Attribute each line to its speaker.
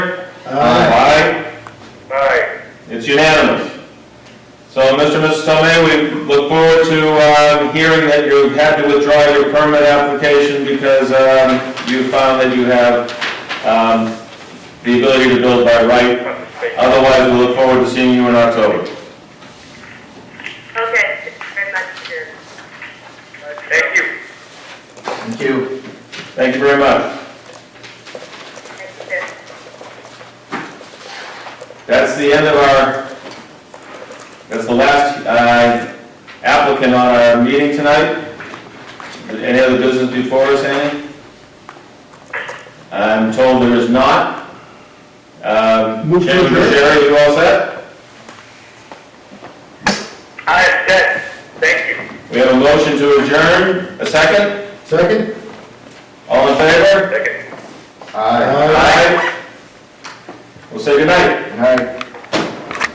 Speaker 1: Aye.
Speaker 2: Aye.
Speaker 1: It's unanimous. So, Mr. and Mrs. Tomei, we look forward to um, hearing that you had to withdraw your permit application because um, you found that you have um, the ability to build by right. Otherwise, we look forward to seeing you in October.
Speaker 3: Okay, thank you very much, sir.
Speaker 2: Thank you.
Speaker 4: Thank you.
Speaker 1: Thank you very much.
Speaker 3: Thank you, sir.
Speaker 1: That's the end of our, that's the last uh, applicant on our meeting tonight. Any other business before us, Annie? I'm told there is not. Um,
Speaker 5: Move to
Speaker 1: Chairman
Speaker 5: adjourn.
Speaker 1: Jerry, you all set?
Speaker 2: Aye, yes. Thank you.
Speaker 1: We have a motion to adjourn, a second?
Speaker 4: Second?
Speaker 1: All in favor?
Speaker 2: Second.
Speaker 4: Aye.
Speaker 1: Aye. We'll say goodnight.
Speaker 4: Aye.